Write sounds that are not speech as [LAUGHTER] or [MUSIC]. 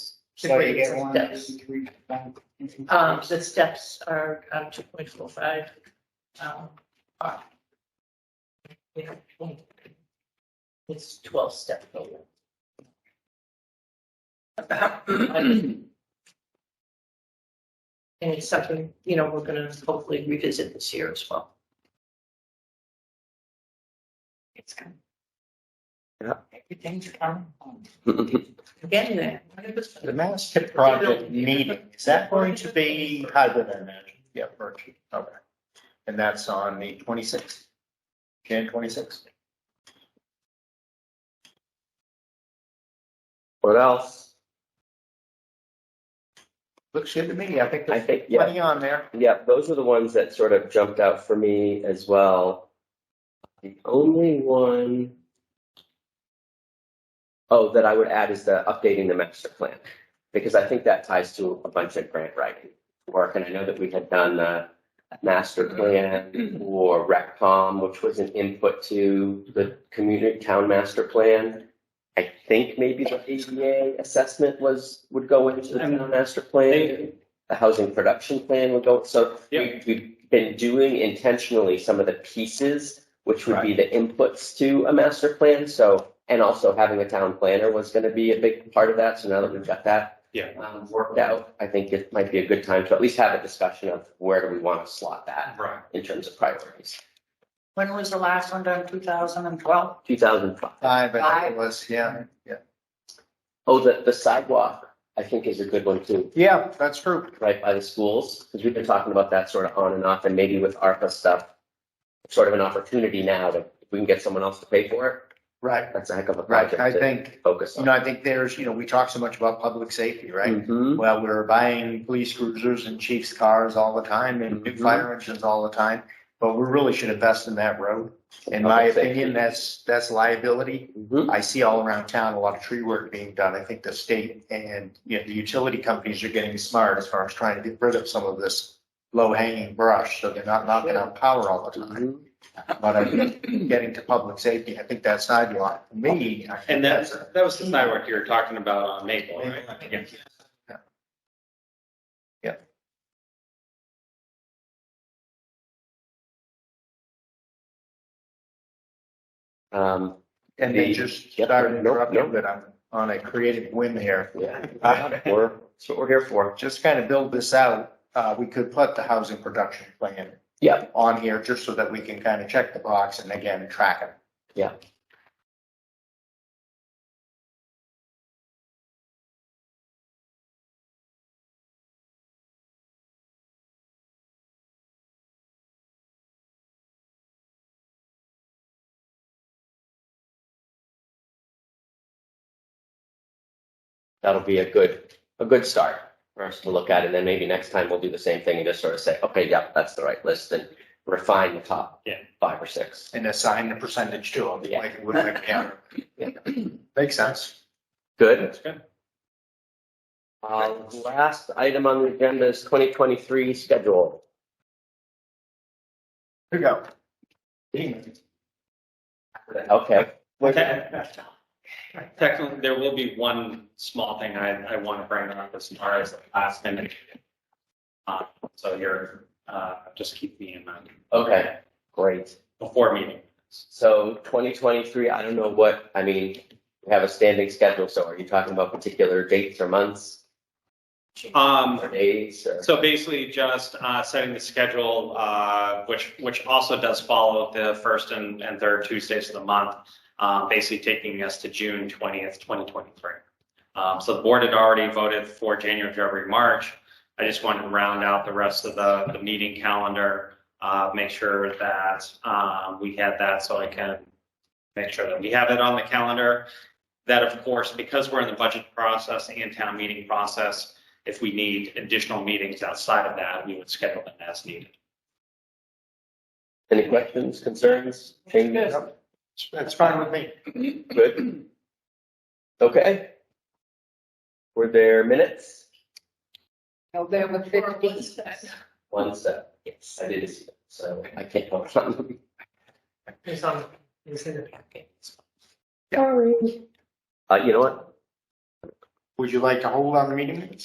So you get one, two, steps. three, four, Um, five, the six. steps are, um, two point four five, um, are. you know, um, It's twelve step program. [CLEARS THROAT] And it's something, you know, we're gonna hopefully revisit this year as well. It's coming. Yeah. Everything's coming. home. We're Getting there. The mass tip project meeting, is that going to be hybrid, I imagine? Yeah, virtual, okay. And that's on the twenty-sixth, Jan twenty-sixth? What else? Looks good to me, I think I there's think, yeah, plenty on there. yeah, those are the ones that sort of jumped out for me as well. The only one oh that I would add is the updating the master plan, because I think that ties to a bunch of grant writing work, and I know that we had done the master plan or RecCom, which was an input to the community town master plan. I think maybe the ADA assessment was, would go into the town master plan. The housing production plan would go, so we, we've been doing intentionally some of the pieces, which would be the inputs to a master plan, so. And also having a town planner was gonna be a big part of that, so now that we've got that. Yeah. Um, worked out, I think it might be a good time to at least have a discussion of where do we wanna slot that Right. in terms of priorities. When was the last one done, two thousand and twelve? Two thousand five. Five, I think it was, yeah, yeah. Oh, the, the sidewalk, I think is a good one too. Yeah, that's true. right by the schools, because we've been talking about that sort of on and off, and maybe with ARPA stuff, sort of an opportunity now that if we can get someone else to pay for it, Right, that's a heck of a right. project I to think, focus you on. know, I think there's, you know, we talk so much about public safety, right? Mhm. Well, we're buying police cruisers and chief's cars all the time and new Mhm. fire engines all the time, but we really should invest in that road. In my Public safety. opinion, that's, that's liability. Mhm. I see all around town a lot of tree work being done. I think the state and, you know, the utility companies are getting smart as far as trying to get rid of some of this low hanging brush, so they're not knocking out power all the time. Mhm. But I think getting to public safety, I think that sidewalk, for me, I think And that's that's, a. that was the sidewalk you were talking about on Maple, right? Yeah. Um, And they just Yep. started Nope, interrupting, nope. but I'm on a creative whim here. yeah, Uh, we're, that's what we're here for. Just kind of build this out, uh, we could put the housing production plan. Yeah. On here, just so that we can kind of check the box and again, track it. Yeah. That'll be a good, a good start for us to look at, and then maybe next time we'll do the same thing and just sort of say, okay, yep, that's the right list, and refine the top Yeah. five or six. And assign the percentage to them, Yeah. like it would have been counter. Yeah. Makes sense. Good? That's good. Uh, last item on the agenda is twenty twenty-three schedule. Here you go. Ding. Okay, Te- Technically, there will be one small thing I, I want to bring up as far as the last minute. Uh, So you're, uh, just keep me in mind. Okay. great. Before meeting. So twenty twenty-three, I don't know what, I mean, we have a standing schedule, so are you talking about particular dates or months Um, or days or? So basically, just uh, setting the schedule, uh, which which also does follow the first and, and third Tuesdays of the month, uh, basically taking us to June twentieth, twenty twenty three. Um, so the board had already voted for January, February, March. I just wanted to round out the rest of the, the meeting calendar, uh, make sure that um, we had that, so I can make sure that we have it on the calendar. That of course, because we're in the budget process and town meeting process, if we need additional meetings outside of that, we would schedule them as needed. Any questions, concerns, changes? That's fine with me. Good. Okay. Were there minutes? November fifteenth. One sec, Yes, I didn't see them, so I can't vote on them. it's on, it's in the packet. Uh, you know what? Would you like to hold on the meeting minutes?